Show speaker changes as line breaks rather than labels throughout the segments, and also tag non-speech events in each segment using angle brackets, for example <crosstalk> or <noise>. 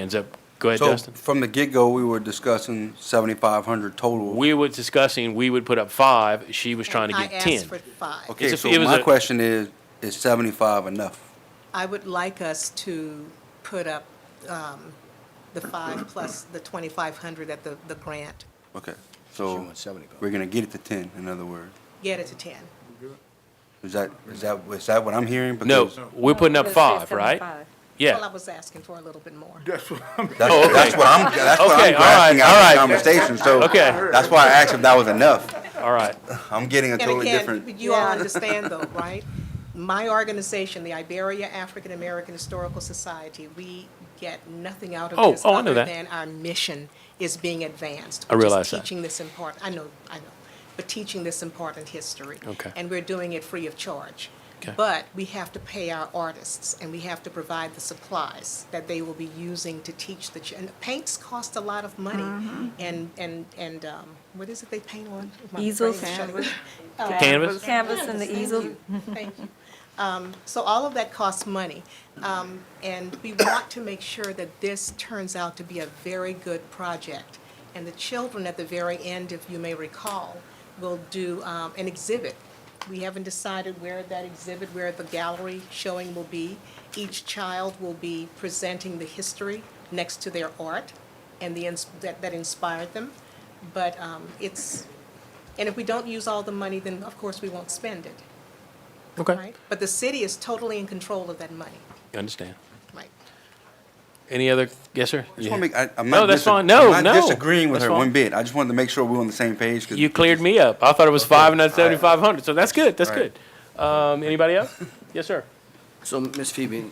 hands up. Go ahead,
So
Dustin.
from the get-go, we were discussing 7,500 total.
We were discussing, we would put up five, she was trying to
And
get
I asked for
ten.
five.
Okay,
It's a-
so
it was
my
a-
question is, is 75 enough?
I would like us to put up um, the five plus the 2,500 at the, the grant,
Okay, so
wants 75.
we're gonna get it to 10, in other words.
get it to 10.
Is that, is that, is that what I'm hearing?
No,
Because
we're putting up five, right?
75.
Well, I
Yeah.
was asking for a little bit more.
That's,
Oh, okay.
that's what I'm, that's what
Okay,
I'm
all right,
grasping
all
out
right.
of the conversation, so.
Okay.
That's why I asked if that was enough.
All right.
I'm getting a
And
totally
again,
different,
you all
Yeah.
understand
<laughs>
though, right? My organization, the Iberia African American Historical Society, we get nothing out
Oh,
of this
oh, I know
other
that.
than our mission is being advanced.
I
which is
realize that.
Teaching this important, I know, I know, but teaching this important history.
Okay.
And we're doing it free of charge.
Okay.
But we have to pay our artists and we have to provide the supplies that they will be using to teach the, ch- and paints cost a lot of
Mm-hmm.
money. And, and, and, um, what is it they paint on? My
Easels.
brain is shutting
Canvas.
down. Uh,
Canvas?
Canvas and the easel.
Thank you. Um, So all of that costs money. Um, And we want to make sure that this turns out to be a very good project. And the children at the very end, if you may recall, will do um, an exhibit. We haven't decided where that exhibit, where the gallery showing will be. Each child will be presenting the history next to their art and the, ins- that that inspired them. But um, it's, and if we don't use all the money, then of course we won't spend it
Okay.
right? But the city is totally in control of that money,
Understand.
right?
Any other, yes, sir?
I just wanna make, I- I'm
No,
not
that's
disa-
fine. No,
I'm
no,
not disagreeing with
that's
her
fine.
one bit. I just wanted to make sure we're on the same page. 'cause-
You cleared me up. I thought it was five and not seventy-five hundred, so that's good, that's
All right.
good. Um, anybody else? Yes, sir.
So, Ms. Phoebe, you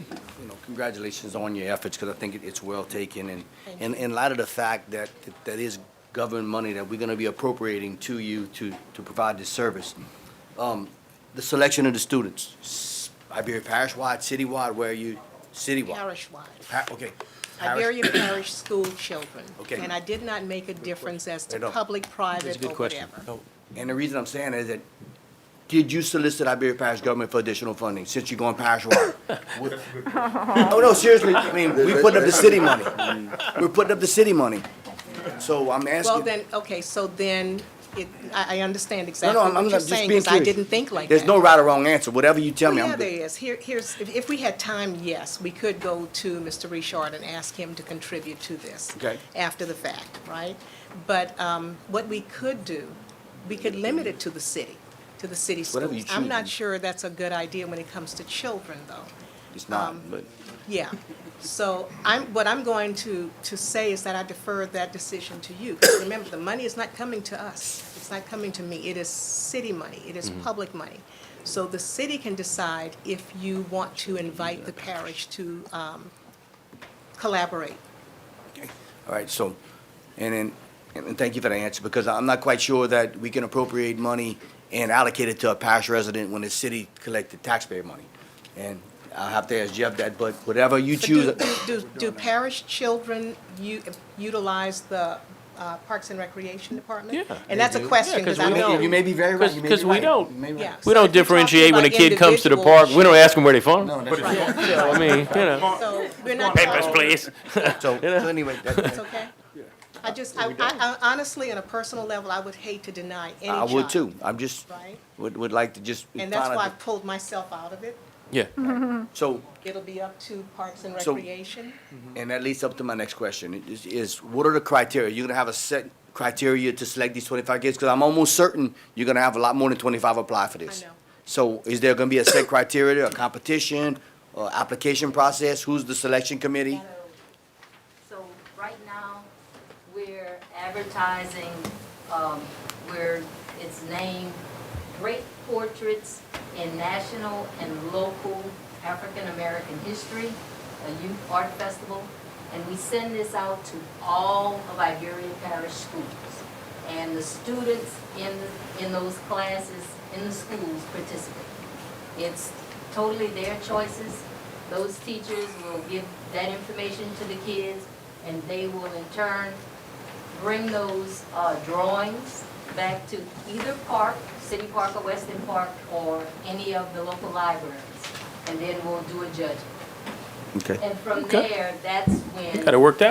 know, congratulations on your efforts, because I think it- it's well taken, and,
Thank
and in light of the fact that, that is government money that we're gonna be appropriating to you to, to provide this service. Um, The selection of the students, s- Iberia parish-wide, citywide, where you, citywide?
Parish-wide,
Pa- Okay. Parish-
Iberia Parish school children.
Okay.
And I did not make a difference as to
I know.
public,
That's
private,
a
or
good question.
Oh, whatever.
No,
And the reason I'm saying is that, did you solicit Iberia Parish government for additional funding, since you're going parish-wide? Oh, no, seriously, I mean, we put up the city money. We're putting up the city money. So I'm
Well,
asking,
then, okay, so then, it, I, I understand
no,
exactly
no, I'm
what
I'm
you're
just being
saying,
curious.
because I didn't think like that.
There's no right or wrong answer, whatever you tell
Well,
me,
Oh, yeah,
I'm
there
good.
is. Here, here's, if, if we had time, yes, we could go to Mr. Richard and ask him to contribute to this.
Okay.
After the fact, right? But, um, what we could do, we could limit it to the city, to the city schools.
Whatever you
I'm
choose.
not sure that's a good idea when it comes to children, though.
It's
um,
not, but,
Yeah, so I'm, what I'm going to, to say is that I defer that decision to you. Remember, the money is not coming to us, it's not coming to me, it is city money, it
Mm-hmm.
is public money. So the city can decide if you want to invite the parish to um, collaborate.
all right, so, and then, and and thank you for the answer, because I'm not quite sure that we can appropriate money and allocate it to a parish resident when the city collected taxpayer money. And I'll have to ask Jeff that, but whatever you
But
choose.
do- Do, do- do parish children u- utilize the uh, Parks and Recreation Department?
Yeah.
And that's a question, because
because
I
we
don't
don't-
know.
You may be very right. you may be
'Cause- 'cause we
right.
don't-
You may be right.
Yeah.
We
So if
don't
you're
differentiate
talking
when a
about
kid comes to the park, we don't
individuals-
ask them where they from.
No, that's right.
You know, I mean, you know.
So we're not.
Papers, please. <laughs>
So, so anyway,
It's
that-
okay? I just, I, I, I- honestly, on a personal level, I would hate to deny any
I would
child,
too. I'm just,
Right?
would, would like to just.
And that's
find
why I
out
pulled myself out of it.
Yeah,
the- So,
It'll be up to Parks and
So-
Recreation.
and that leads up to my next question, is, is what are the criteria? You're gonna have a set criteria to select these twenty-five kids? Because I'm almost certain you're gonna have a lot more than twenty-five apply for this.
I know.
So is there gonna be a set criteria, a competition, or application process? Who's the selection committee?
So right now, we're advertising, um, we're, it's named Great Portraits in National and Local African-American History, a youth art festival. And we send this out to all of Iberian Parish schools. And the students in, in those classes, in the schools participate. It's totally their choices. Those teachers will give that information to the kids, and they will in turn bring those uh, drawings back to either park, City Park or Weston Park, or any of the local libraries, and then we'll do a judging.
Okay.
And from
Okay.
there, that's when.
Got it worked out.